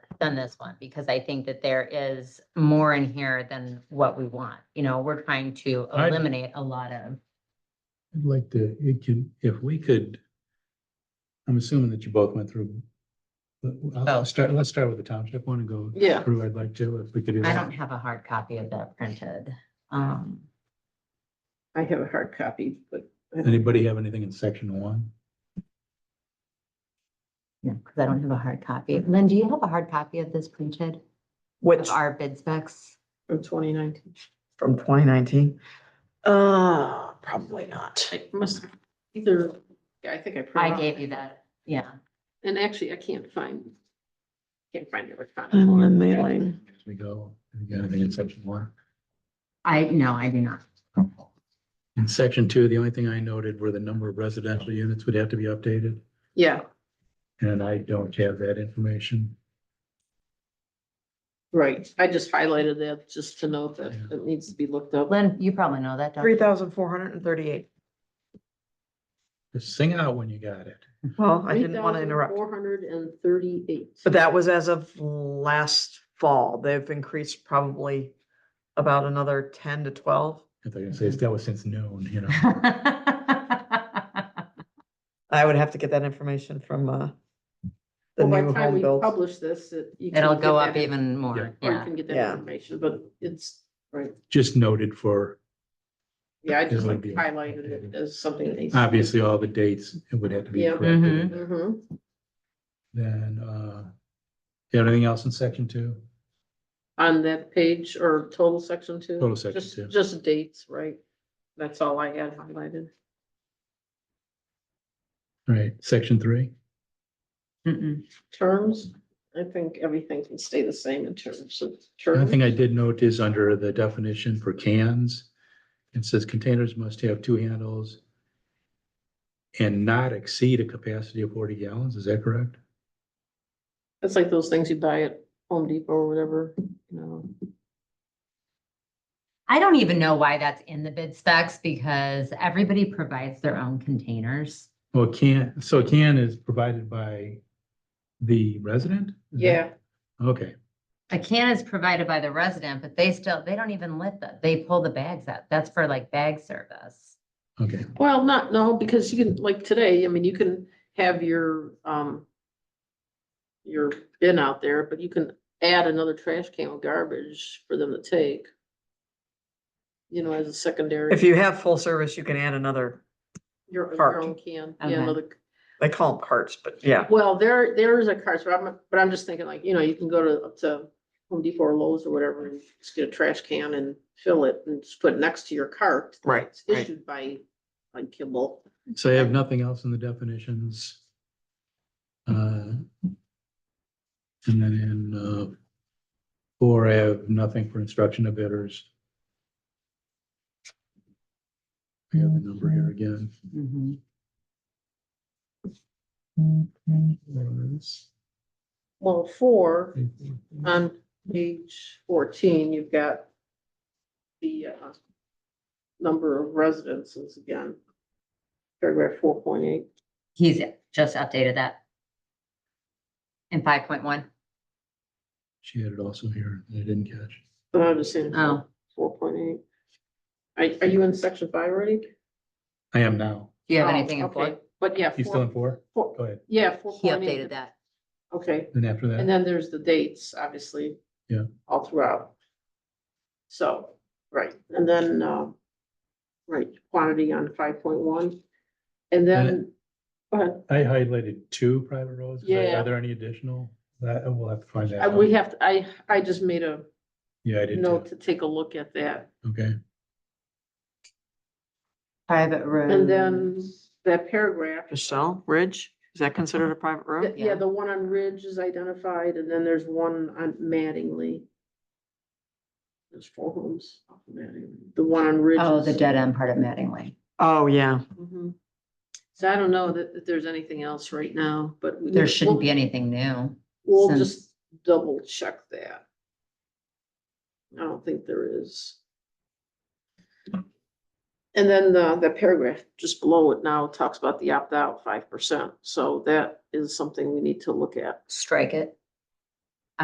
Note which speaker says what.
Speaker 1: than this one, because I think that there is more in here than what we want. You know, we're trying to
Speaker 2: I-
Speaker 1: eliminate a lot of,
Speaker 2: I'd like to, it can, if we could. I'm assuming that you both went through. But I'll- I'll
Speaker 1: Oh.
Speaker 2: start, let's start with the township one and go
Speaker 3: Yeah.
Speaker 2: through. I'd like to, if we could do
Speaker 1: I
Speaker 2: that.
Speaker 1: don't have a hard copy of that printed. Um,
Speaker 3: I have a hard copy, but
Speaker 2: Anybody have anything in section one?
Speaker 1: no, because I don't have a hard copy. Lynn, do you have a hard copy of this printed?
Speaker 4: Which,
Speaker 1: Of our bid specs?
Speaker 3: from twenty nineteen.
Speaker 4: from twenty nineteen? Uh, probably not.
Speaker 3: I must either, I think I.
Speaker 1: I
Speaker 3: printed
Speaker 1: gave
Speaker 3: off.
Speaker 1: you that, yeah.
Speaker 3: And actually, I can't find, can't find it.
Speaker 4: I'm on mailing.
Speaker 2: As we go, you got anything in section one?
Speaker 1: I, no, I do not.
Speaker 2: In section two, the only thing I noted were the number of residential units would have to be updated,
Speaker 3: Yeah,
Speaker 2: and I don't have that information.
Speaker 3: right. I just highlighted that just to note that
Speaker 2: Yeah.
Speaker 3: it needs to be looked up.
Speaker 1: Lynn, you probably know that, don't
Speaker 4: Three
Speaker 1: you?
Speaker 4: thousand four hundred and thirty-eight.
Speaker 2: Just sing out when you got it.
Speaker 4: Well, I didn't want to interrupt,
Speaker 3: Four hundred and thirty-eight.
Speaker 4: but that was as of last fall. They've increased probably about another ten to twelve.
Speaker 2: I thought you were gonna say that was since noon, you know.
Speaker 4: I would have to get that information from, uh, the
Speaker 3: Well, by
Speaker 4: new
Speaker 3: the time
Speaker 4: home
Speaker 3: we
Speaker 4: builds.
Speaker 3: publish this, it. you can
Speaker 1: It'll
Speaker 3: get
Speaker 1: go
Speaker 3: that
Speaker 1: up
Speaker 3: in-
Speaker 1: even
Speaker 2: Yeah.
Speaker 1: more,
Speaker 3: Or you
Speaker 1: yeah.
Speaker 3: can get that
Speaker 4: Yeah.
Speaker 3: information, but it's, right.
Speaker 2: Just noted for,
Speaker 3: Yeah, I just
Speaker 2: It'll
Speaker 3: like
Speaker 2: be-
Speaker 3: highlighted it as something that needs.
Speaker 2: obviously, all the dates, it would have to be
Speaker 3: Yeah.
Speaker 2: corrected.
Speaker 1: Mhm.
Speaker 3: hmm
Speaker 2: Then, uh, you have anything else in section two?
Speaker 3: on that page or total section two?
Speaker 2: Total section
Speaker 3: Just-
Speaker 2: two.
Speaker 3: Just dates, right? That's all I had highlighted.
Speaker 2: All Right, section three?
Speaker 1: Mm-mm.
Speaker 3: Terms, I think everything can stay the same in terms of
Speaker 2: The only
Speaker 3: terms.
Speaker 2: thing I did note is under the definition for cans, it says containers must have two handles and not exceed a capacity of forty gallons, is that correct?
Speaker 3: It's like those things you buy at Home Depot or whatever, you know.
Speaker 2: Mm-hmm.
Speaker 1: I don't even know why that's in the bid specs because everybody provides their own containers.
Speaker 2: Well, can, so a can is provided by the resident? Is that-
Speaker 3: Yeah,
Speaker 2: Okay,
Speaker 1: A can is provided by the resident, but they still, they don't even lift them. They pull the bags out. That's for like bag service.
Speaker 2: okay,
Speaker 3: well, not, no, because you can, like today, I mean, you can have your, um, your bin out there, but you can add another trash can of garbage for them to take. You know, as a secondary.
Speaker 4: If you have full service, you can add another,
Speaker 3: Your, your
Speaker 4: Cart.
Speaker 3: own can,
Speaker 1: Okay.
Speaker 3: yeah, another,
Speaker 4: they call them carts, but yeah.
Speaker 3: well, there, there is a cart, so I'm, but I'm just thinking like, you know, you can go to, up to Home Depot or Lowe's or whatever, and just get a trash can and fill it and just put it next to your cart.
Speaker 4: Right,
Speaker 3: It's
Speaker 4: right.
Speaker 3: issued by, like Kimball.
Speaker 2: so I have nothing else in the definitions. Uh, And then in, uh, four, I have nothing for instruction of bidders. I got the number here again.
Speaker 3: Mm-hmm. Well, four, on page fourteen, you've got the, uh, number of residences again. Paragraph four point eight.
Speaker 1: He's just updated that. In five point one.
Speaker 2: She had it also here, and I didn't catch.
Speaker 3: But I'm just saying.
Speaker 1: Oh,
Speaker 3: Four point eight. Are, are you in section five already?
Speaker 2: I am now.
Speaker 1: do you have
Speaker 3: Oh,
Speaker 1: anything in
Speaker 3: okay.
Speaker 1: four?
Speaker 3: But yeah.
Speaker 2: You still in four?
Speaker 3: four-
Speaker 2: Go ahead.
Speaker 3: Yeah, four
Speaker 1: He
Speaker 3: point eight.
Speaker 1: updated that.
Speaker 3: Okay,
Speaker 2: Then after
Speaker 3: and
Speaker 2: that,
Speaker 3: then there's the dates, obviously.
Speaker 2: Yeah.
Speaker 3: All throughout. So, right, and then, um, right, quantity on five point one. And then, go ahead.
Speaker 2: I highlighted two private roads. Is there-
Speaker 3: Yeah.
Speaker 2: Are there any additional? That, we'll have to find that
Speaker 3: I-
Speaker 2: out.
Speaker 3: Uh, we have, to- I, I just made a
Speaker 2: Yeah, I did too.
Speaker 3: note to take a look at that.
Speaker 2: Okay,
Speaker 1: Private road.
Speaker 3: And
Speaker 1: Um,
Speaker 3: then that paragraph,
Speaker 4: Michelle, Ridge, is that considered a private road?
Speaker 3: th- yeah,
Speaker 1: yeah.
Speaker 3: the one on Ridge is identified, and then there's one on Mattingly. There's four homes off of Mattingly. The one on Ridge.
Speaker 1: Oh,
Speaker 3: is-
Speaker 1: the dead end part of Mattingly.
Speaker 4: Oh, yeah.
Speaker 3: Mhm. So I don't know that, that there's anything else right now, but. we-
Speaker 1: There shouldn't
Speaker 3: we'll-
Speaker 1: be anything new.
Speaker 3: We'll
Speaker 1: since-
Speaker 3: just double check that. I don't think there is. And then the, the paragraph just below it now talks about the opt-out five percent, so that is something we need to look at.
Speaker 1: Strike it.